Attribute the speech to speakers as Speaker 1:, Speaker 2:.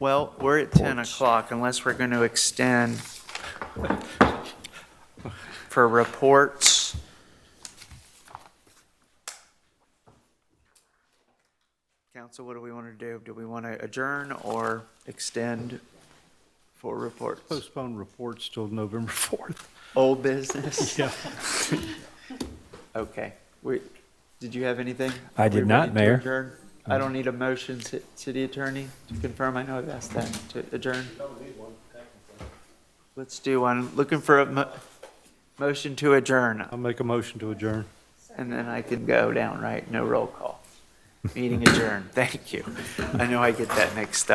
Speaker 1: Well, we're at 10 o'clock unless we're going to extend for reports. Council, what do we want to do? Do we want to adjourn or extend for reports?
Speaker 2: Postpone reports till November 4th.
Speaker 1: Old business?
Speaker 2: Yeah.
Speaker 1: Okay. We- Did you have anything?
Speaker 3: I did
Speaker 1: We
Speaker 3: not,
Speaker 1: ready to
Speaker 3: Mayor. Mm.
Speaker 1: adjourn? I don't need a motion, ci- city attorney, to confirm. I know I've asked that to adjourn. Let's do one. Looking for a mo- motion to adjourn,
Speaker 2: I'll make a motion to adjourn.
Speaker 1: and then I can go down, right? No roll call. Meeting adjourned. Thank you. I know I get that mixed up.